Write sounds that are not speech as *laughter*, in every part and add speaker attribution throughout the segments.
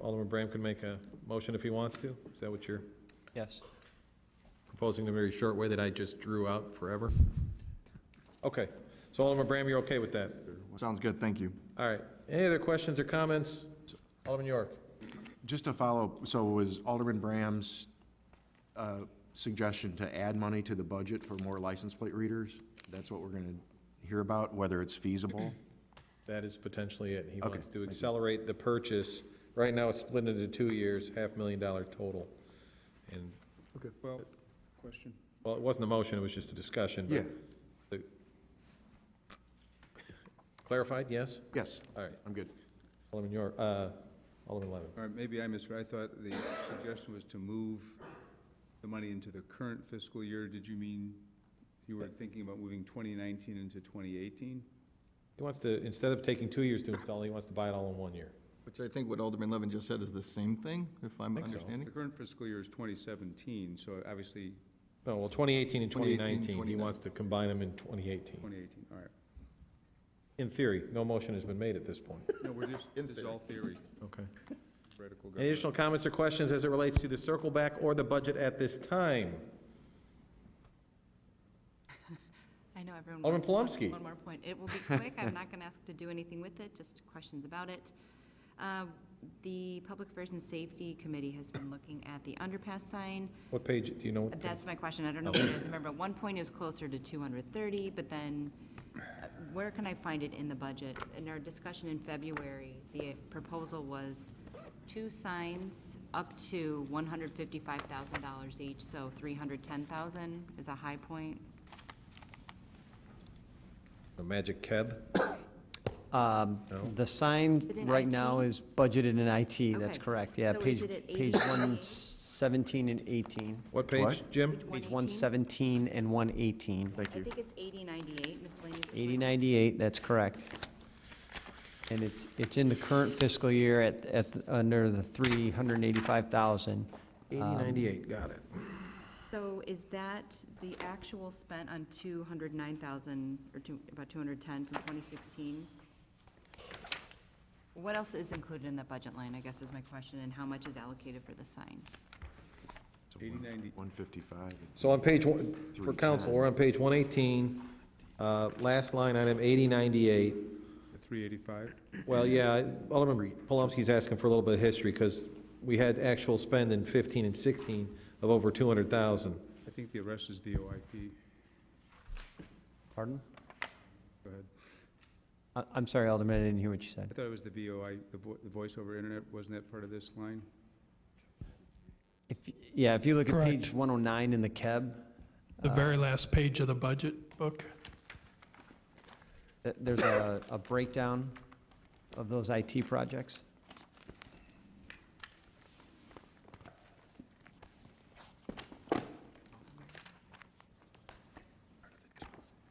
Speaker 1: Alderman Bram can make a motion if he wants to? Is that what you're
Speaker 2: Yes.
Speaker 1: proposing, the very short way that I just drew out forever? Okay, so Alderman Bram, you're okay with that?
Speaker 3: Sounds good, thank you.
Speaker 1: All right, any other questions or comments? Alderman York?
Speaker 3: Just to follow, so was Alderman Bram's uh, suggestion to add money to the budget for more license plate readers? That's what we're going to hear about, whether it's feasible?
Speaker 1: That is potentially it. He
Speaker 3: Okay,
Speaker 1: wants
Speaker 3: thank
Speaker 1: to
Speaker 3: you.
Speaker 1: accelerate the purchase. Right now, it's split into two years, half million dollar total. And,
Speaker 4: Okay. Well, question.
Speaker 1: well, it wasn't a motion, it was just a discussion. but-
Speaker 3: Yeah,
Speaker 1: Clarified, yes?
Speaker 3: yes,
Speaker 1: All right,
Speaker 3: I'm good.
Speaker 1: Alderman York, uh, Alderman Levin.
Speaker 4: All right, maybe I misread. I thought the suggestion was to move the money into the current fiscal year. Did you mean you were thinking about moving 2019 into 2018?
Speaker 1: He wants to, instead of taking two years to install, he wants to buy it all in one year.
Speaker 5: Which I think what Alderman Levin just said is the same thing, if I'm
Speaker 1: Think so.
Speaker 5: understanding.
Speaker 4: The current fiscal year is 2017, so obviously
Speaker 1: No, Oh, well, 2018 and
Speaker 5: 2018,
Speaker 1: 2019, he wants to combine them in 2018.
Speaker 4: 2018, all right.
Speaker 1: In theory, no motion has been made at this point.
Speaker 4: No, we're just, this is all theory,
Speaker 1: Okay.
Speaker 4: theoretical
Speaker 1: Any
Speaker 4: government.
Speaker 1: additional comments or questions as it relates to the circle back or the budget at this time?
Speaker 6: I know everyone.
Speaker 1: Alderman
Speaker 6: wants
Speaker 1: Palomsky.
Speaker 6: One more point. It will be quick. I'm not going to ask to do anything with it, just questions about it. Uh, The Public Affairs and Safety Committee has been looking at the underpass sign.
Speaker 1: What page, do you know? what the-
Speaker 6: That's my question. I don't know what it is. Remember, at one point it was closer to 230, but then uh, where can I find it in the budget? In our discussion in February, the proposal was two signs up to $155,000 each, so 310,000 is a high point.
Speaker 1: The magic keb?
Speaker 2: Um, The sign
Speaker 6: Is it in
Speaker 2: right now
Speaker 6: IT?
Speaker 2: is budgeted in IT, that's
Speaker 6: Okay.
Speaker 2: correct, yeah.
Speaker 6: So is
Speaker 2: page
Speaker 6: it at
Speaker 2: Page
Speaker 6: 88?
Speaker 2: 117 and 18.
Speaker 1: What page, Jim?
Speaker 6: Page
Speaker 2: Page
Speaker 6: 118?
Speaker 2: 117 and 118.
Speaker 3: Thank
Speaker 6: I
Speaker 3: you.
Speaker 6: think it's eighty ninety-eight miscellaneous.
Speaker 2: 8098, that's correct. And it's, it's in the current fiscal year at, at, under the 385,000. um,
Speaker 1: 8098, got it.
Speaker 6: So is that the actual spent on two hundred nine thousand, or two, about two hundred ten from twenty sixteen? What else is included in that budget line, I guess is my question, and how much is allocated for the sign?
Speaker 4: 8090.
Speaker 3: 155.
Speaker 1: So on page one, for council, we're on page 118, uh, last line item, 8098.
Speaker 4: The 385?
Speaker 1: Well, yeah, Alderman Palomski's asking for a little bit of history, because we had actual spend in 15 and 16 of over 200,000.
Speaker 4: I think the rest is VoIP.
Speaker 2: Pardon?
Speaker 4: Go ahead.
Speaker 2: I- I'm sorry, Alderman, I didn't hear what you
Speaker 4: I
Speaker 2: said.
Speaker 4: thought it was the VoI, the vo- the voice over internet, wasn't that part of this line?
Speaker 2: If, yeah, if you look at page 109 in the E KEB,
Speaker 7: The very last page of the budget book.
Speaker 2: th- there's a a breakdown of those IT projects.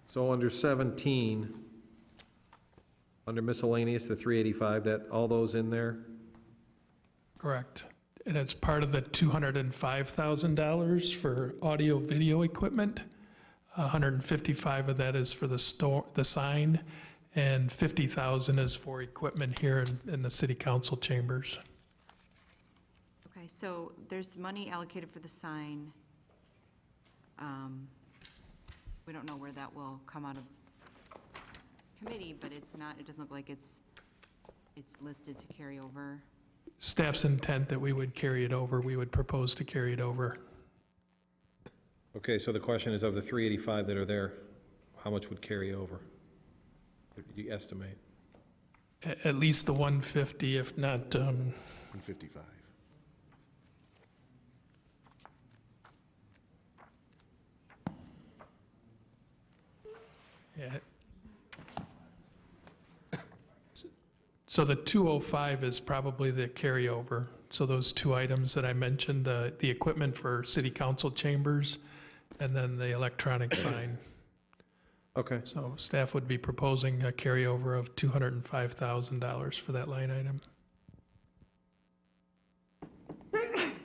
Speaker 1: So under 17, under miscellaneous, the 385, that, all those in there?
Speaker 7: Correct. And it's part of the $205,000 for audio-video equipment. 155 of that is for the store, the sign, and 50,000 is for equipment here in, in the city council chambers.
Speaker 6: Okay, so there's money allocated for the sign. Um, We don't know where that will come out of committee, but it's not, it doesn't look like it's, it's listed to carry over.
Speaker 7: Staff's intent that we would carry it over, we would propose to carry it over.
Speaker 1: Okay, so the question is, of the 385 that are there, how much would carry over? Do you estimate?
Speaker 7: A- At least the 150, if not, um,
Speaker 3: 155.
Speaker 7: Yeah. *coughs* So the 205 is probably the carryover. So those two items that I mentioned, the, the equipment for city council chambers and then the electronic sign.
Speaker 1: Okay.
Speaker 7: So staff would be proposing a carryover of $205,000 for that line item.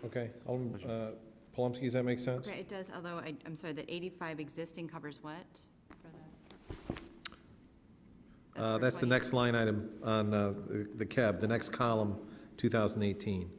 Speaker 1: Okay, Alderman, uh, Palomski, does that make sense?
Speaker 6: Okay, it does, although I, I'm sorry, that 85 existing covers what? for the-
Speaker 1: Uh,
Speaker 6: for
Speaker 1: That's the
Speaker 6: 20
Speaker 1: uh, next line item on uh, the the cab, the next column 2018.